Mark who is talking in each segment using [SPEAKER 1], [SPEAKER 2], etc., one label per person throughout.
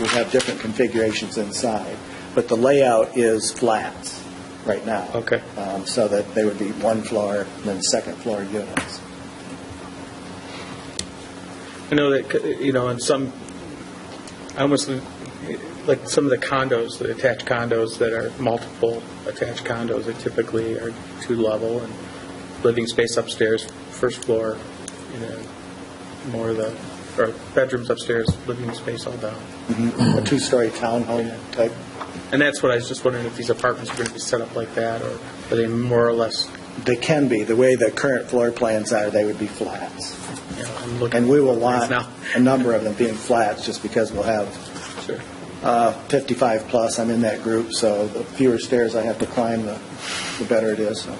[SPEAKER 1] we have different configurations inside, but the layout is flats right now.
[SPEAKER 2] Okay.
[SPEAKER 1] Um, So that they would be one floor, then second floor units.
[SPEAKER 2] I know that, you know, in some, I almost, like some of the condos, the attached condos that are multiple attached condos, they typically are two-level and living space upstairs, first floor, you know, more of the, or bedrooms upstairs, living space all down.
[SPEAKER 1] A two-story townhome type.
[SPEAKER 2] And that's what I was just wondering if these apartments are going to be set up like that, or are they more or less,
[SPEAKER 1] They can be, the way the current floor plans are, they would be flats.
[SPEAKER 2] you know, I'm looking.
[SPEAKER 1] And we will
[SPEAKER 2] at
[SPEAKER 1] want
[SPEAKER 2] now.
[SPEAKER 1] a number of them being flats, just because we'll have
[SPEAKER 2] Sure.
[SPEAKER 1] uh, 55 plus, I'm in that group, so the fewer stairs I have to climb, the the better it is, so.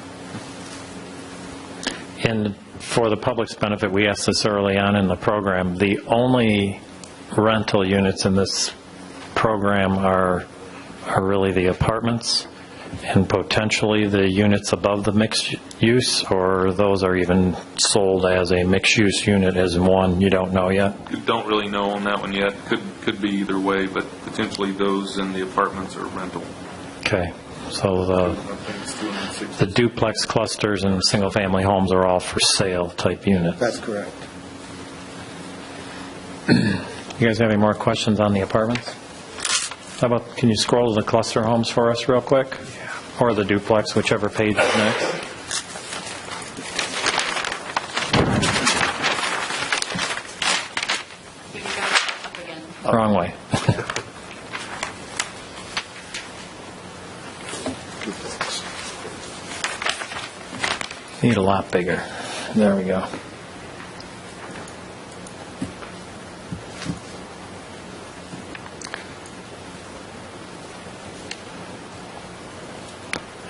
[SPEAKER 3] And for the public's benefit, we asked this early on in the program, the only rental units in this program are, are really the apartments and potentially the units above the mixed use, or those are even sold as a mixed-use unit as one, you don't know yet?
[SPEAKER 4] Don't really know on that one yet. Could, could be either way, but potentially those in the apartments are rental.
[SPEAKER 3] Okay, so
[SPEAKER 4] I
[SPEAKER 3] the,
[SPEAKER 4] think it's 260.
[SPEAKER 3] the duplex clusters and single-family homes are all for sale type units.
[SPEAKER 1] That's correct.
[SPEAKER 3] You guys have any more questions on the apartments? How about, can you scroll to the cluster homes for us real quick? Or the duplex, whichever page is next?
[SPEAKER 5] You got it up again.
[SPEAKER 3] Wrong way. Need a lot bigger. There we go.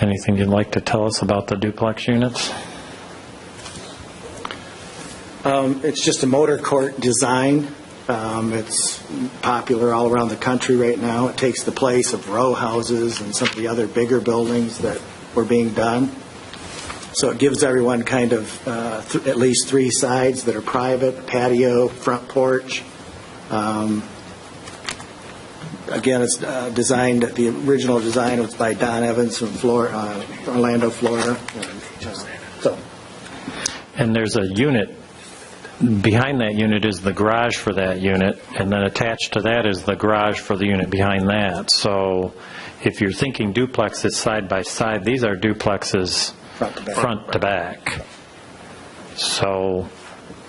[SPEAKER 3] Anything you'd like to tell us about the duplex units?
[SPEAKER 1] Um, It's just a motor court design. Um, It's popular all around the country right now. It takes the place of row houses and some of the other bigger buildings that were being done. So it gives everyone kind of uh, th- at least three sides that are private, patio, front porch. Um, Again, it's uh, designed, the original design was by Don Evans from Flor- uh, Orlando, Florida. And, uh, So
[SPEAKER 3] And there's a unit, behind that unit is the garage for that unit, and then attached to that is the garage for the unit behind that. So if you're thinking duplexes side by side, these are duplexes
[SPEAKER 1] Front to back.
[SPEAKER 3] front to back. So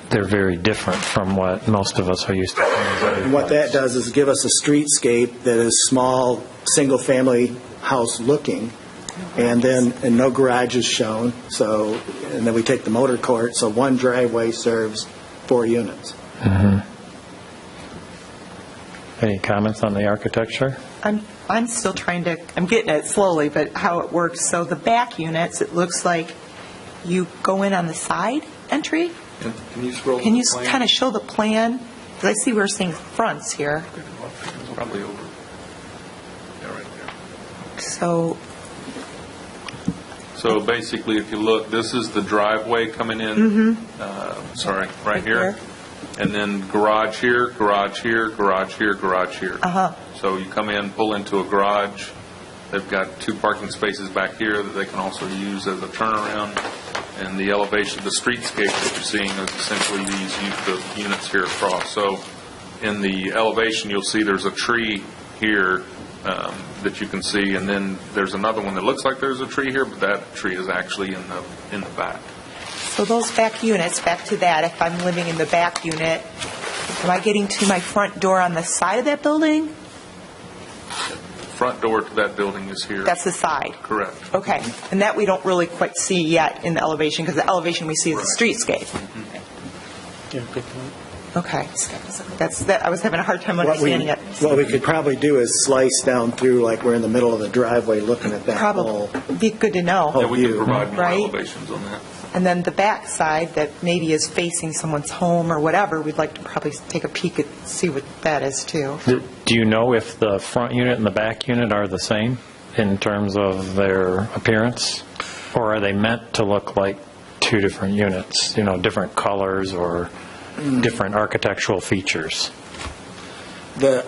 [SPEAKER 3] they're very different from what most of us are used to.
[SPEAKER 1] And what that does is give us a streetscape that is small, single-family house looking, and then, and no garage is shown, so, and then we take the motor court, so one driveway serves four units.
[SPEAKER 3] Any comments on the architecture?
[SPEAKER 6] I'm, I'm still trying to, I'm getting it slowly, but how it works. So the back units, it looks like you go in on the side entry?
[SPEAKER 4] Can can you scroll?
[SPEAKER 6] Can you
[SPEAKER 4] the plan?
[SPEAKER 6] kind of show the plan? Because I see we're seeing fronts here.
[SPEAKER 4] Probably over. Yeah, right there.
[SPEAKER 6] So,
[SPEAKER 4] So basically, if you look, this is the driveway coming in, uh, sorry, right
[SPEAKER 6] Mm-hmm. Right
[SPEAKER 4] here.
[SPEAKER 6] there.
[SPEAKER 4] And then garage here, garage here, garage here, garage here.
[SPEAKER 6] Uh-huh.
[SPEAKER 4] So you come in, pull into a garage, they've got two parking spaces back here that they can also use as a turnaround, and the elevation, the streetscape that you're seeing is essentially these, u- the units here across. So in the elevation, you'll see there's a tree here um, that you can see, and then there's another one that looks like there's a tree here, but that tree is actually in the, in the back.
[SPEAKER 6] so those back units, back to that, if I'm living in the back unit, am I getting to my front door on the side of that building?
[SPEAKER 4] Front door to that building is here.
[SPEAKER 6] That's the side?
[SPEAKER 4] Correct.
[SPEAKER 6] Okay. And that we don't really quite see yet in the elevation, because the elevation we see is the streetscape.
[SPEAKER 2] Yeah, good point.
[SPEAKER 6] Okay. That's, that, I was having a hard time
[SPEAKER 1] What we-
[SPEAKER 6] understanding it.
[SPEAKER 1] What we could probably do is slice down through, like we're in the middle of the driveway looking at that whole.
[SPEAKER 6] Probably, be good to
[SPEAKER 4] Yeah,
[SPEAKER 6] know.
[SPEAKER 4] we can
[SPEAKER 1] view,
[SPEAKER 4] provide more
[SPEAKER 6] right?
[SPEAKER 4] elevations on that.
[SPEAKER 6] And then the back side that maybe is facing someone's home or whatever, we'd like to probably take a peek at, see what that is too.
[SPEAKER 3] Do do you know if the front unit and the back unit are the same in terms of their appearance? Or are they meant to look like two different units, you know, different colors or different architectural features?
[SPEAKER 1] The